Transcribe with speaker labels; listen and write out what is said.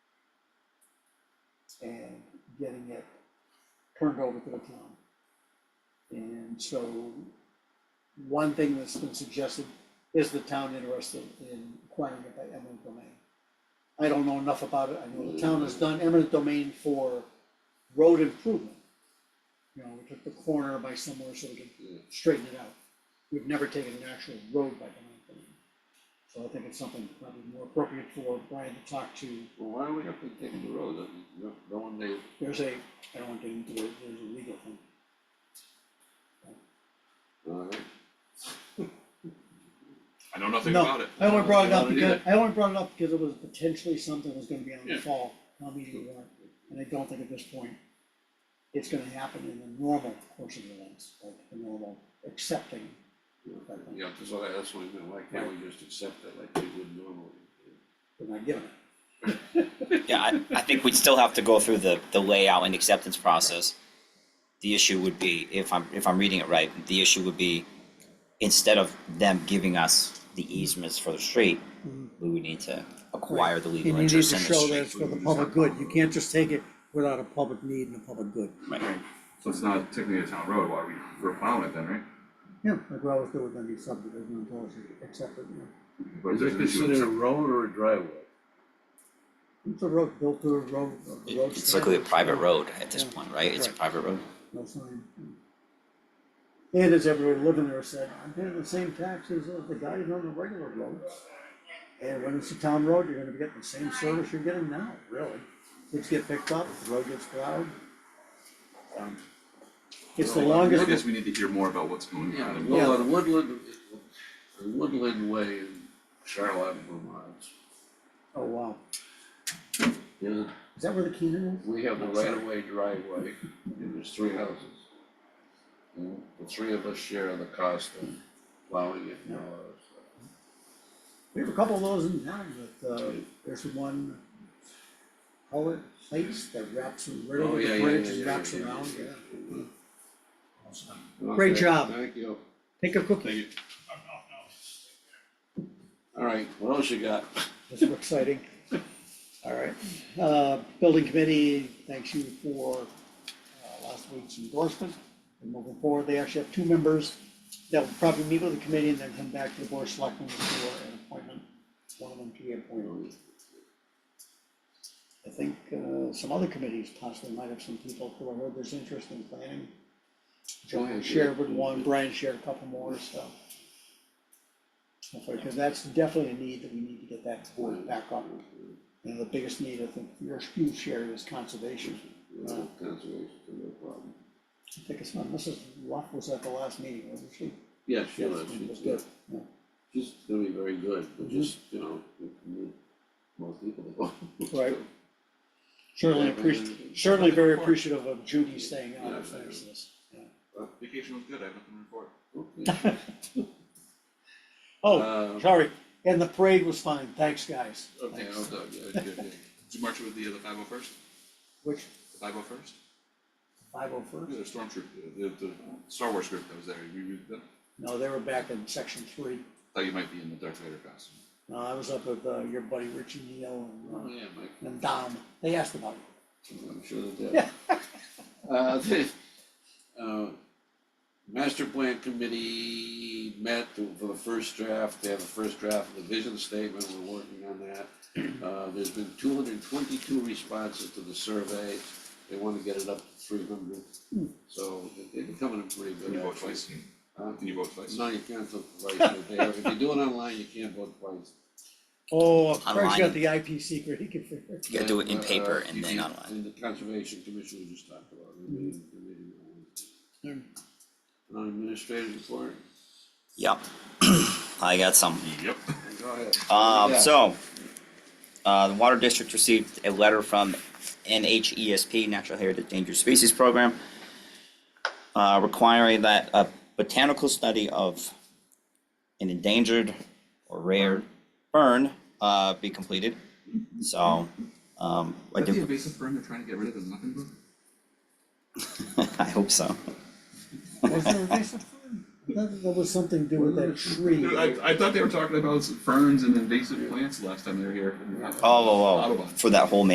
Speaker 1: and getting it turned over to the town. And so, one thing that's been suggested, is the town interested in acquiring it by eminent domain? I don't know enough about it, I know the town has done eminent domain for road improvement. You know, we took the corner by somewhere so we could straighten it out. We've never taken an actual road by eminent domain. So I think it's something probably more appropriate for Brian to talk to
Speaker 2: Well, why do we have to take the road, I mean, no, no one they,
Speaker 1: There's a, I don't want to get into it, there's a legal thing.
Speaker 2: uh,
Speaker 3: I know nothing
Speaker 1: No,
Speaker 3: about it.
Speaker 1: I only brought it up
Speaker 2: Not
Speaker 1: because,
Speaker 2: either.
Speaker 1: I only brought it up because it was potentially something that was gonna be on the
Speaker 3: Yeah.
Speaker 1: fall, town meeting warrant. And I don't think at this point, it's gonna happen in the normal course of events, like the normal accepting. of that thing.
Speaker 2: yeah, that's what I, that's what I meant, why can't we just accept it like we would normally?
Speaker 1: They're not giving it.
Speaker 4: Yeah, I, I think we'd still have to go through the, the layout and acceptance process. The issue would be, if I'm, if I'm reading it right, the issue would be, instead of them giving us the easements for the street,
Speaker 1: Mhm.
Speaker 4: we would need to acquire the
Speaker 1: And
Speaker 4: legal
Speaker 1: you need to
Speaker 4: interest in the
Speaker 1: show that
Speaker 4: street.
Speaker 1: it's for the public good, you can't just take it without a public need and a public good.
Speaker 4: Right.
Speaker 3: So it's not technically a town road, why we, we're plowing it then, right?
Speaker 1: Yeah, like we always do with any subdivision, until it's accepted, you know.
Speaker 3: But
Speaker 2: Is it
Speaker 3: there's an issue with
Speaker 2: considered a road or a driveway?
Speaker 1: It's a road, built to a road, a road.
Speaker 4: It's likely a
Speaker 1: standard.
Speaker 4: private road at this point, right? It's a
Speaker 1: Right.
Speaker 4: private road.
Speaker 1: No sign. And as everybody living there said, I'm paying the same taxes as the guy who's on the regular road. And when it's a town road, you're gonna be getting the same service you're getting now, really. Kids get picked up, the road gets plowed. Um, It's the
Speaker 3: I
Speaker 1: longest,
Speaker 3: guess we need to hear more about what's going
Speaker 2: Yeah,
Speaker 3: on.
Speaker 2: well, on Woodland, the Woodland Way in Charlotte, Vermont,
Speaker 1: oh wow,
Speaker 2: you know,
Speaker 1: is that where the Keenan is?
Speaker 2: we have the right of way driveway, and there's three houses. And the three of us share the cost of plowing it and all that stuff.
Speaker 1: We have a couple of those in town, but, uh, there's one, call it place that wraps, right
Speaker 2: Oh,
Speaker 1: over
Speaker 2: yeah,
Speaker 1: the
Speaker 2: yeah,
Speaker 1: bridge
Speaker 2: yeah,
Speaker 1: and
Speaker 2: yeah,
Speaker 1: wraps
Speaker 2: yeah,
Speaker 1: around,
Speaker 2: yeah.
Speaker 1: yeah.
Speaker 2: Okay,
Speaker 1: job.
Speaker 2: Thank you.
Speaker 1: Take a cookie,
Speaker 2: All right, what else you got?
Speaker 1: This is exciting. All right, uh, building committee, thanks you for, uh, last week's endorsement. And moving forward, they actually have two members that will probably meet with the committee and then come back to the board of selectmen for an appointment, one of them to be appointed. I think, uh, some other committees possibly might have some people who I heard there's interest in planning. John shared with one, Brian shared a couple more, so. Because that's definitely a need that we need to get that board back up. And the biggest need, I think, your huge share is conservation.
Speaker 2: Well, Conservation, no problem.
Speaker 1: I think it's not, Mrs. Luck was at the last meeting, wasn't she?
Speaker 2: Yeah, she
Speaker 1: Yes,
Speaker 2: was,
Speaker 1: she was
Speaker 2: she's
Speaker 1: good.
Speaker 2: good.
Speaker 1: Yeah.
Speaker 2: She's gonna be very good, but just, you know, we can meet more people to go.
Speaker 1: Right. Certainly appreciative, certainly very appreciative of Judy staying on as this.
Speaker 3: Vacation was good, I have nothing to report.
Speaker 2: Okay.
Speaker 1: Oh,
Speaker 2: Uh,
Speaker 1: sorry, and the parade was fine, thanks, guys.
Speaker 2: Okay,
Speaker 1: Thanks.
Speaker 2: I'll do it, yeah, good, yeah.
Speaker 3: Did you march with the, uh, the five oh first,
Speaker 1: Which,
Speaker 3: the five oh first?
Speaker 1: five oh
Speaker 3: Yeah,
Speaker 1: first?
Speaker 3: the storm troop, the, the the Star Wars group that was there, you, you, that-
Speaker 1: No, they were back in section three.
Speaker 3: thought you might be in the Darth Vader costume.
Speaker 1: No, I was up with, uh, your buddy Richie Neal
Speaker 2: Oh,
Speaker 1: and,
Speaker 2: yeah, Mike,
Speaker 1: uh, and Dom, they asked about it.
Speaker 2: I'm sure that that. Uh, the, uh, master plan committee met to- for the first draft, they have the first draft of the vision statement, we're working on that. Uh, there's been two hundred and twenty-two responses to the survey, they wanna get it up to three hundred, so it- it's coming in pretty good.
Speaker 3: Can you vote
Speaker 2: actually.
Speaker 3: twice?
Speaker 2: Huh?
Speaker 3: Can you vote twice?
Speaker 2: No, you can't vote twice, They have- if you do it online, you can't vote twice.
Speaker 1: Oh, Craig's got
Speaker 4: Online.
Speaker 1: the IP secret, he can figure it.
Speaker 4: You gotta do it in
Speaker 2: Uh,
Speaker 4: paper and then
Speaker 2: you-
Speaker 4: online.
Speaker 2: And the conservation commission we just talked about, the meeting- the meeting on Wednesday.
Speaker 1: out.
Speaker 2: Non-administrative report,
Speaker 4: Yep. I got some.
Speaker 3: Yep.
Speaker 2: go ahead.
Speaker 4: Um,
Speaker 2: Yeah.
Speaker 4: so, uh, the Water District received a letter from NHESP, Natural Heritage Endangered Species Program, uh, requiring that a botanical study of an endangered or rare fern, uh, be completed. So, um, I
Speaker 3: Is that the
Speaker 4: do,
Speaker 3: invasive fern they're trying to get rid of in Mecklenburg?
Speaker 4: I hope so.
Speaker 1: Was there a recent one? I thought that there was something to do with that tree.
Speaker 3: Dude, I, I thought they were talking about ferns and invasive plants last time they were here.
Speaker 4: Oh, oh, oh,
Speaker 3: Audubon.
Speaker 4: for that whole